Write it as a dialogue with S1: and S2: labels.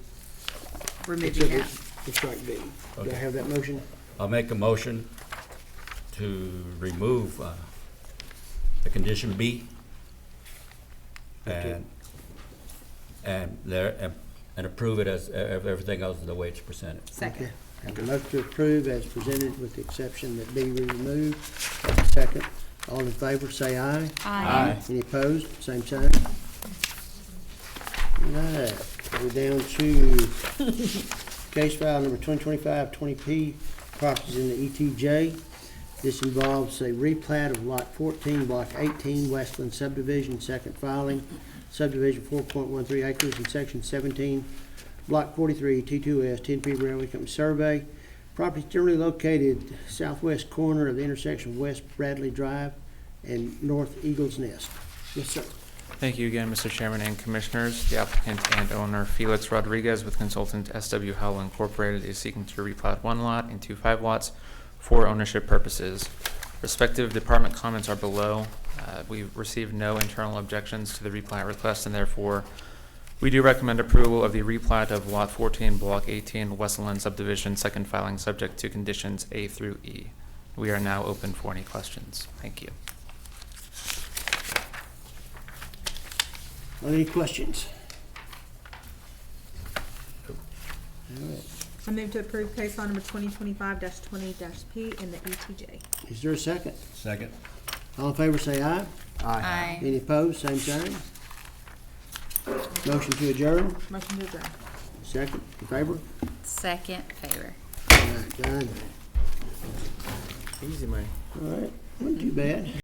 S1: removing
S2: Except
S1: that.
S2: it's for strike B. Do I
S3: Okay.
S2: have that motion?
S3: I'll make a motion to remove uh, the condition B.
S2: Okay.
S3: And, and there, and- and approve it as, e- everything else is the way it's presented.
S1: Second.
S2: Okay. Have a motion to approve as presented with the exception that B be removed. Have a Second, all in favor, say aye.
S1: Aye.
S2: Any opposed? Same sign. Alright, we're down to case file number 2025-20P, properties in the ETJ. This involves a replat of Lot 14, Block 18, Westland subdivision, second filing, subdivision 4.13 acres in Section 17, Block 43, T2S, 10P Railway Company Survey. Property generally located southwest corner of the intersection of West Bradley Drive and North Eagles Nest. Yes, sir.
S4: Thank you again, Mr. Chairman and Commissioners. The applicant and owner Felix Rodriguez with consultant SW Howell Incorporated is seeking to replat one lot into five lots for ownership purposes. Respective department comments are below. Uh, We've received no internal objections to the replat request, and therefore, we do recommend approval of the replat of Lot 14, Block 18, Westland subdivision, second filing, subject to conditions A through E. We are now open for any questions. Thank you.
S2: Are there any questions? All right.
S1: I move to approve case file number twenty twenty-five twenty P in the E ETJ.
S2: Is there a second?
S3: Second.
S2: All in favor, say aye.
S1: Aye.
S2: Any opposed, same sign. Motion to adjourn,
S1: Motion to adjourn.
S2: second, in favor?
S5: Second favor.
S2: All right, done.
S4: Easy, Mike.
S2: All right, wasn't too bad.